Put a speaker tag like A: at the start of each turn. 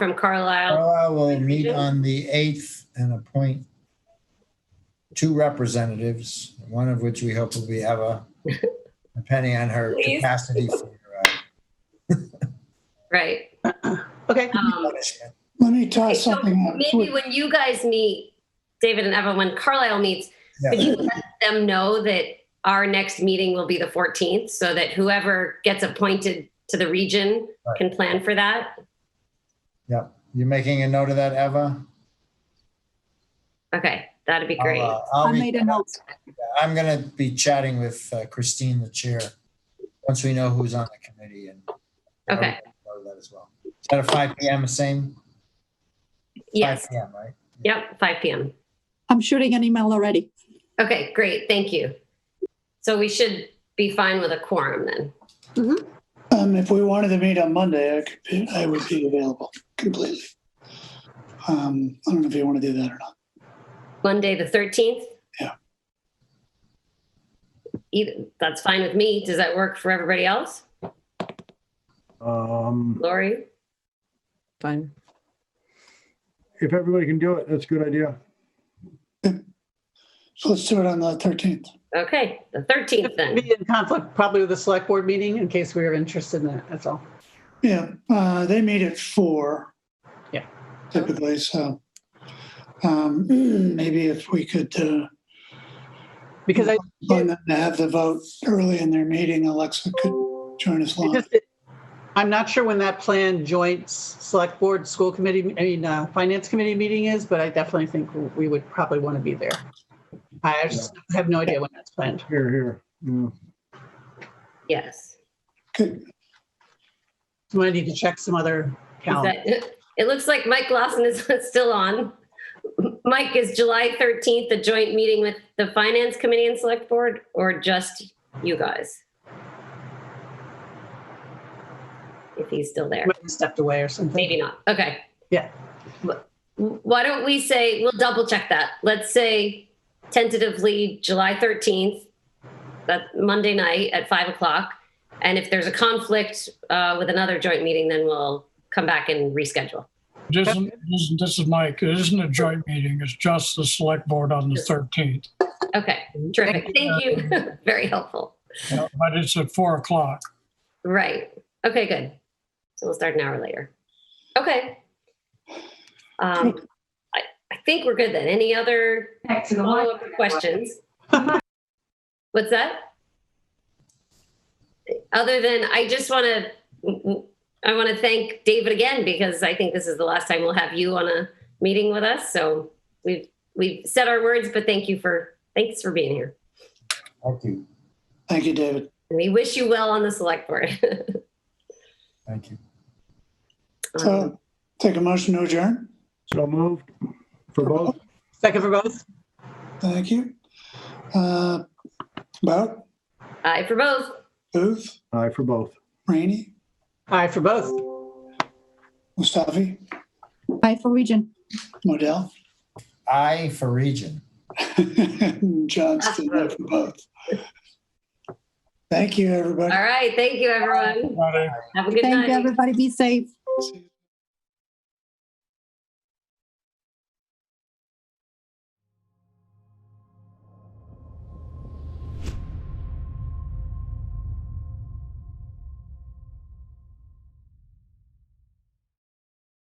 A: from Carlisle.
B: Carlisle will meet on the 8th and appoint two representatives, one of which we hope will be Eva, depending on her
A: Please.
B: capacity for uh,
A: Right.
C: Okay,
A: Um,
B: punishment.
D: Let me
A: okay,
D: toss
A: so
D: something out.
A: maybe when you guys meet, David and Evan, when Carlisle meets, could
B: Yeah.
A: you let them know that our next meeting will be the 14th so that whoever gets appointed to the region
B: Right.
A: can plan for that?
B: You making a note of that, Eva?
A: Okay, that'd be great.
B: I'll, uh, I'll
C: I
B: be-
C: made a note.
B: I'm going to be chatting with uh, Christine, the chair, once we know who's on the committee and.
A: Okay.
B: I'll That as well. Is that a 5 PM, same? 5
A: Yes.
B: PM, right?
A: Yep, 5 PM.
C: I'm shooting an email already.
A: Okay, great. Thank you. So we should be fine with a quorum then.
D: Um, if we wanted to meet on Monday, I could be, I would be available completely. Um, I don't know if you want to do that or not.
A: Monday, the 13th?
D: Yeah.
A: Either, that's fine with me. Does that work for everybody else?
E: Um,
A: Lori?
F: Fine.
E: if everybody can do it, that's a good idea.
D: So let's do it on the thirteenth.
A: Okay, the 13th then.
G: Be in conflict probably with the select board meeting in case we were interested in that, that's all.
D: Yeah, uh, they meet at four.
G: Yeah.
D: Typically, so, um, maybe if we could, uh,
G: Because I,
D: plan them to have the vote early in their meeting, Alexa could join us
G: I
A: Mm-hmm.
D: live.
G: just, I'm not sure when that planned joint s- select board, school committee, I mean, uh, finance committee meeting is, but I definitely think we would probably want to be there. I just have no idea when that's planned.
E: Here, here. Yeah.
A: Yes.
D: Good.
G: So I need to check some other
A: Is
G: calendar.
A: that- It looks like Mike Lawson is still on. Mike, is July 13th a joint meeting with the Finance Committee and Select Board or just you guys? If he's still there,
G: Might have Stepped away or something.
A: maybe not. Okay.
G: Yeah.
A: Wh- Why don't we say, we'll double check that. Let's say tentatively July 13th, that Monday night at 5 o'clock. And if there's a conflict uh, with another joint meeting, then we'll come back and reschedule.
H: This isn't, this is- this is Mike. It isn't a joint meeting. It's just the select board on the 13th,
A: Okay, terrific. Mm-hmm. Thank you. Very helpful.
H: but it's at four o'clock.
A: Right. Okay, good. So we'll start an hour later. Okay. Um, I, I think we're good then. Any other follow-up questions? What's that? Other than, I just want to, I want to thank David again because I think this is the last time we'll have you on a meeting with us. So we've, we've said our words, but thank you for, thanks for being here.
B: Thank you.
D: Thank you, David.
A: And we wish you well on the select board.
B: Thank you.
A: Um,
D: So take a motion to adjourn.
E: So moved for both.
G: Second for both?
D: Thank you. Uh, About
A: Aye for both.
D: Booth,
E: Aye, for both.
D: Rainey,
G: Aye for both.
D: Mustafi,
C: Bye for region.
D: Modell,
B: I for region.
D: John's still there for both. Thank you, everybody.
A: All right. Thank you, everyone.
H: Friday.
A: Have a good
C: Thank
A: night.
C: you, everybody. Be safe.
D: See you.